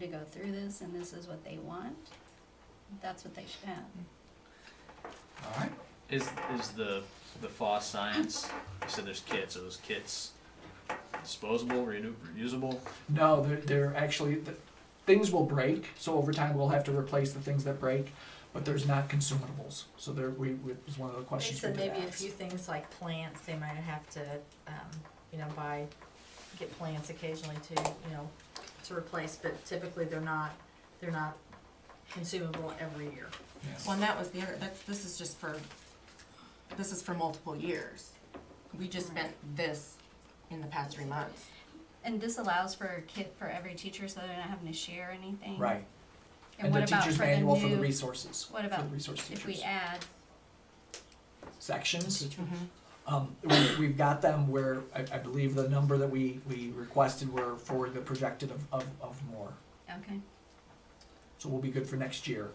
to go through this and this is what they want, that's what they should have. All right. Is is the the FOSS science? You said there's kits. Are those kits disposable, renew, reusable? No, they're, they're actually, the, things will break, so over time we'll have to replace the things that break, but there's not consumables. So there, we, we- it was one of the They questions we said did maybe a ask. few things like plants, they might have to, um, you know, buy, get plants occasionally to, you know, to replace, but typically they're not, they're not consumable every year. Yes. Well, and that was the other, that's, this is just for, this is for multiple years. We just spent this in the past three months. And this allows for a kit for every teacher so they're not having to share anything. Right. And what the about teacher's for the manual for the new, resources. what for about the resource if we teachers add, Mm-hmm. sections? Um, we, we've got them where I, I believe the number that we, we requested were for the projected of, of, of more. okay, So we'll be good for next year.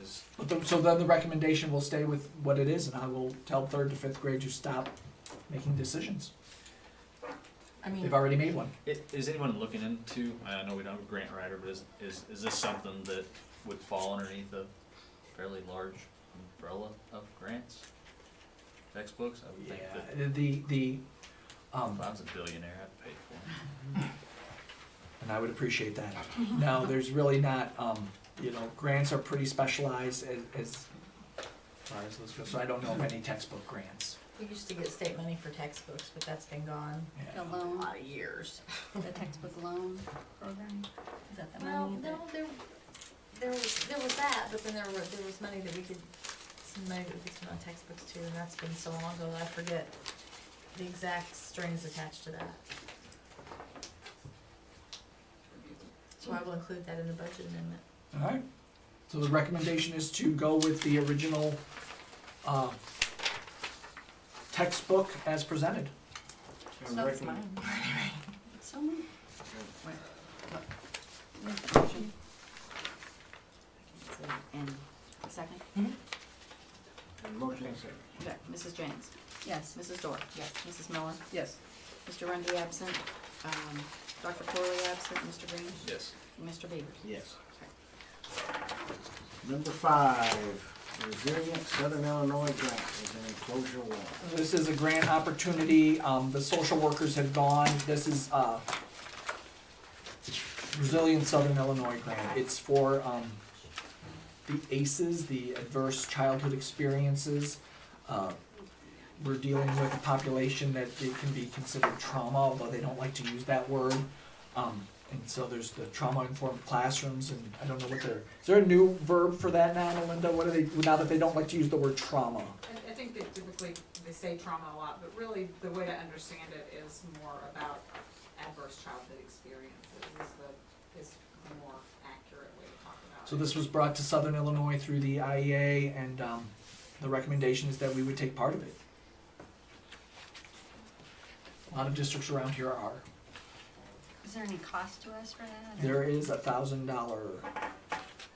Is But the, so then the recommendation will stay with what it is, and I will tell third to fifth grade to stop making decisions. I mean, Mm. They've already made one. i- is anyone looking into? I know we don't have a grant writer, but is is, is this something that would fall underneath a fairly large umbrella of grants? Textbooks. I would Yeah, think that the, the, um, if I was a billionaire, I'd pay for them. and I would appreciate that. No, there's really not, um, you know, grants are pretty specialized as, as far as those go, so I don't know of any textbook grants. We used to get state money for textbooks, but that's been gone Yeah. the a loan, lot of years. the textbook loan program? Is that the Well, money that? no, there, there was, there was that, but then there was, there was money that we could, some money that we could spend on textbooks too, and that's been so long ago, that I forget the exact strings attached to that. So I will include that in the budget amendment. All right, so the recommendation is to go with the original, uh, textbook as presented. So that's mine. So many. What? Make a motion. And second? Mhm. And motion and second. Okay, Mrs. James, Yes, Mrs. Dorr. Yes. Mrs. Miller, yes. Mr. Rungy absent, um, Dr. Corley absent, Mr. Green, Yes. and Mr. Beavers. Yes. Number five, resilient Southern Illinois grant is an enclosure wall. This is a grant opportunity, um, the social workers have gone, this is, uh, Resilient Southern Illinois grant, it's for, um, the ACEs, the Adverse Childhood Experiences. Uh, We're dealing with a population that it can be considered trauma, although they don't like to use that word. Um, and so there's the trauma-informed classrooms, and I don't know what they're, is there a new verb for that now, Melinda? What are they, now that they don't like to use the word trauma? I, I think that typically they say trauma a lot, but really the way to understand it is more about adverse childhood experiences is the, is the more accurate way to talk about it. So this was brought to Southern Illinois through the IEA, and um, the recommendation is that we would take part of it. A lot of districts around here are. Is there any cost to us for that? There is a thousand dollar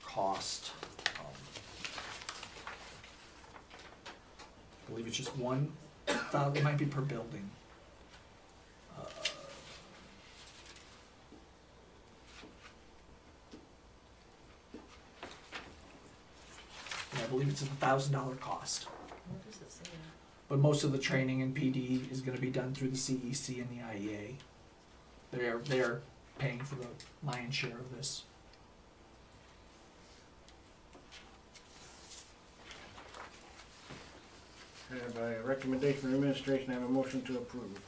cost. um, I believe it's just one thousand, it might be per building. Uh, Yeah, I believe it's a thousand dollar cost, What does it say? but most of the training in PD is gonna be done through the CEC and the E IEA. They're, they're paying for the lion's share of this. I Have a recommendation from administration, I have a motion to approve.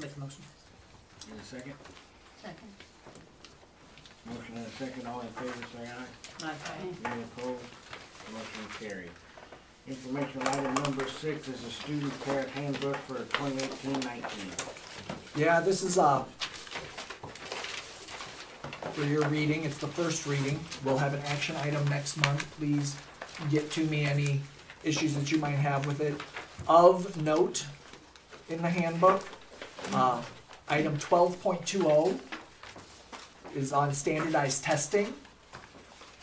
Make a motion. Need a second? Second. Motion and a second, all in favor, say aye. Aye. Any opposed? Motion carried. Information item number six is a student care handbook for 2018-19. Yeah, this is, uh, for your reading, it's the first reading. We'll have an action item next month. Please get to me any issues that you might have with it. Of note, in the handbook, uh, item twelve point two oh is on standardized testing.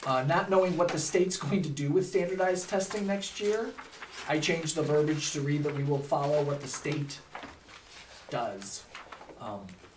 Uh, not knowing what the state's going to do with standardized testing next year, I changed the verbiage to read that we will follow what the state does. Um,